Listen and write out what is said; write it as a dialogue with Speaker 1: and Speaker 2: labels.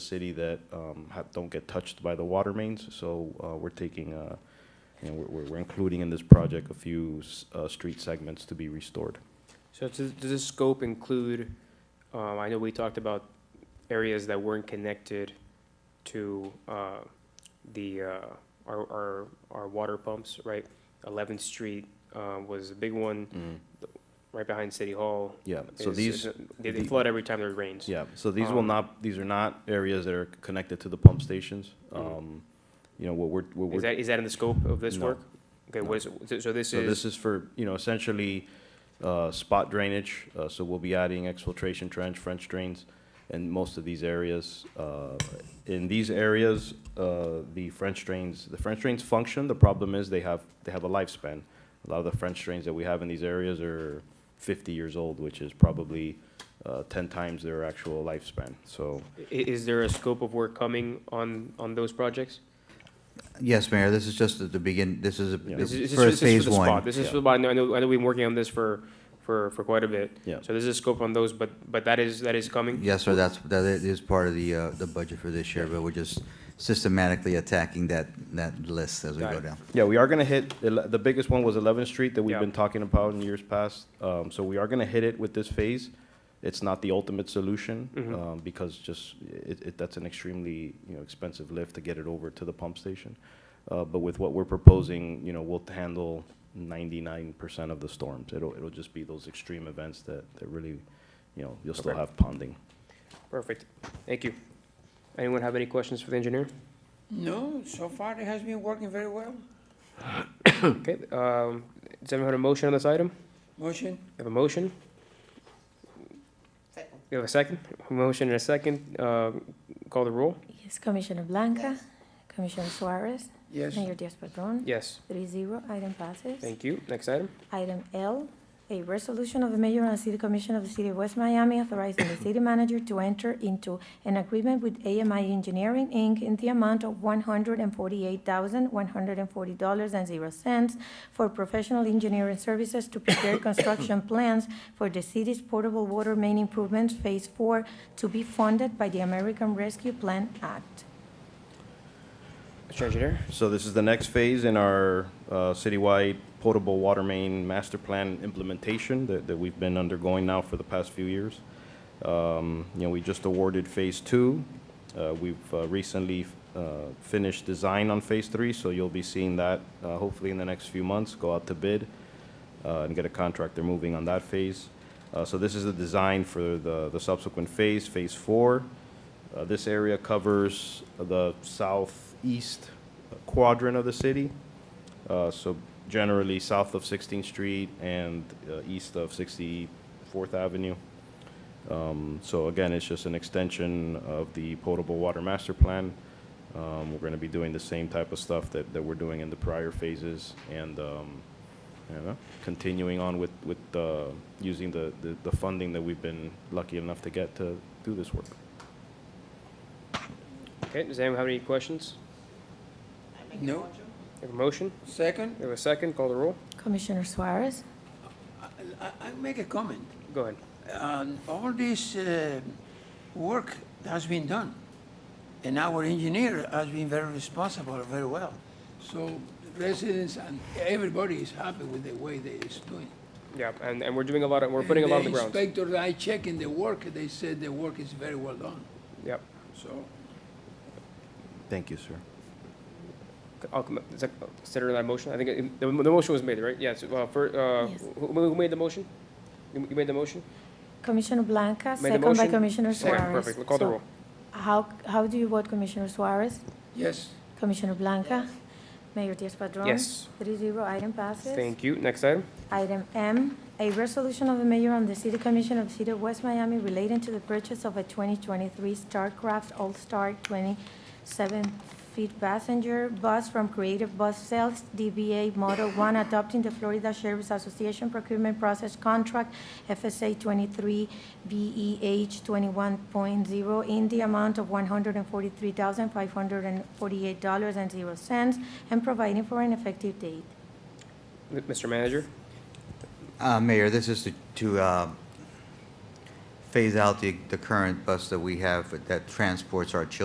Speaker 1: city that um, ha- don't get touched by the water mains. So uh, we're taking, uh, you know, we're- we're we're including in this project a few s- uh, street segments to be restored.
Speaker 2: So does, does this scope include, um, I know we talked about areas that weren't connected to, uh, the, uh, our, our, our water pumps, right? Eleventh Street, uh, was a big one, right behind City Hall.
Speaker 1: Yeah, so
Speaker 2: It's-
Speaker 1: these,
Speaker 2: it's- They, they
Speaker 1: the-
Speaker 2: flood every time there rains.
Speaker 1: Yeah, so these will
Speaker 2: Um,
Speaker 1: not, these are not areas that are connected to the pump stations.
Speaker 2: Mhm.
Speaker 1: Um, You know, what we're, what
Speaker 2: Is
Speaker 1: we're,
Speaker 2: that, is that in the scope of this
Speaker 1: No.
Speaker 2: work? Okay,
Speaker 1: No.
Speaker 2: what is, so- so this
Speaker 1: so
Speaker 2: is,
Speaker 1: this is for, you know, essentially uh, spot drainage. uh, So we'll be adding exfiltration trench, French drains in most of these areas. Uh, In these areas, uh, the French drains, the French drains function. The problem is they have, they have a lifespan. A lot of the French drains that we have in these areas are 50 years old, which is probably uh, 10 times their actual lifespan. So
Speaker 2: i- is there a scope of work coming on, on those projects?
Speaker 3: Yes, Mayor, this is just at the begin, this is, a-
Speaker 1: Yeah.
Speaker 2: This is,
Speaker 3: this
Speaker 2: this is-
Speaker 3: is for
Speaker 2: this is
Speaker 3: phase
Speaker 2: for the spot.
Speaker 3: one.
Speaker 2: This is
Speaker 1: Yeah.
Speaker 2: for the spot. I know, I know- I know we've been working on this for, for, for quite a bit.
Speaker 1: Yeah.
Speaker 2: So this is scope on those, but, but that is, that is coming?
Speaker 3: Yes, sir, that's, that is part of the, uh, the budget for this year, but we're just systematically attacking that, that list as we
Speaker 2: Got
Speaker 3: go
Speaker 2: it.
Speaker 3: down.
Speaker 1: Yeah, we are gonna hit, ele- the biggest one was 11th Street that we've
Speaker 2: Yeah.
Speaker 1: been talking about in years past. Um, So we are gonna hit it with this phase. It's not the ultimate solution,
Speaker 2: Mhm.
Speaker 1: um, because just, it, it, that's an extremely, you know, expensive lift to get it over to the pump station. Uh, But with what we're proposing, you know, we'll handle 99% of the storms. It'll, it'll just be those extreme events that, that really, you know, you'll still
Speaker 2: Okay.
Speaker 1: have ponding.
Speaker 2: Perfect. Thank you. Anyone have any questions for the engineer?
Speaker 4: No, so far it has been working very well.
Speaker 2: Okay, um, does anyone have a motion on this item?
Speaker 4: Motion,
Speaker 2: We have a motion? We have a second? Motion and a second. Uh, call the roll?
Speaker 5: Yes, Commissioner Blanca. Commissioner Suarez.
Speaker 4: yes.
Speaker 5: Mayor Diaz-Padrón.
Speaker 2: Yes,
Speaker 5: Three zero, item passes.
Speaker 2: thank you. Next item?
Speaker 5: Item L, a resolution of the mayor and city commission of the city of West Miami authorizing the city manager to enter into an agreement with AMI Engineering, Inc. in the amount of one hundred and forty-eight thousand, one hundred and forty dollars and zero cents for professional engineering services to prepare construction plans for the city's portable water main improvements phase four to be funded by the American Rescue Plan Act.
Speaker 2: Mr. Engineer?
Speaker 1: So this is the next phase in our uh, citywide potable water main master plan implementation that, that we've been undergoing now for the past few years. Um, You know, we just awarded Phase Two. Uh, We've uh, recently uh, finished design on Phase Three, so you'll be seeing that uh, hopefully in the next few months, go out to bid uh, and get a contractor moving on that phase. Uh, So this is the design for the, the subsequent phase, Phase Four. Uh, This area covers the southeast quadrant of the city. Uh, So generally south of 16th Street and uh, east of 64th Avenue. Um, So again, it's just an extension of the potable water master plan. Um, We're going to be doing the same type of stuff that, that we're doing in the prior phases and, um, you know, continuing on with, with uh, using the, the- the funding that we've been lucky enough to get to do this work.
Speaker 2: Okay, does anyone have any questions?
Speaker 4: No,
Speaker 2: We have a motion?
Speaker 4: second,
Speaker 2: We have a second. Call the roll?
Speaker 5: Commissioner Suarez?
Speaker 4: I, I- I make a comment.
Speaker 2: Go ahead.
Speaker 4: Um, all this, uh, work has been done. And our engineer has been very responsible, very well. So residents and everybody is happy with the way they is doing.
Speaker 2: Yeah, and, and we're doing a lot of, we're putting a lot on the ground.
Speaker 4: And inspector, I check in the work, they said the work is very well done,
Speaker 2: Yep.
Speaker 4: so.
Speaker 1: Thank you, sir.
Speaker 2: I'll com- is that- consider that motion. I think it- the, the motion was made, right? Yes, well, for, uh,
Speaker 5: Yes.
Speaker 2: who, who made the motion? You you made the motion?
Speaker 5: Commissioner Blanca,
Speaker 2: Made the
Speaker 5: second by
Speaker 2: motion?
Speaker 5: Commissioner
Speaker 2: Second,
Speaker 5: Suarez.
Speaker 2: Perfect, call the
Speaker 5: So,
Speaker 2: roll.
Speaker 5: How, how do you vote Commissioner Suarez?
Speaker 4: Yes,
Speaker 5: Commissioner Blanca? Mayor Diaz-Padrón?
Speaker 2: Yes.
Speaker 5: Three zero, item passes.
Speaker 2: Thank you. Next item?
Speaker 5: Item M, a resolution of the mayor and the city commission of the city of West Miami relating to the purchase of a 2023 StarCraft All-Star 27-feet passenger bus from Creative Bus Sales DBA Model 1, adopting the Florida Sheriff's Association procurement process contract FSA E 23BEH 21.0 in the amount of $143,548.00 and providing for an effective date.
Speaker 2: M- Mr. Manager?
Speaker 3: Uh, Mayor, this is to, to, uh, phase out the, the current bus that we have that transports our children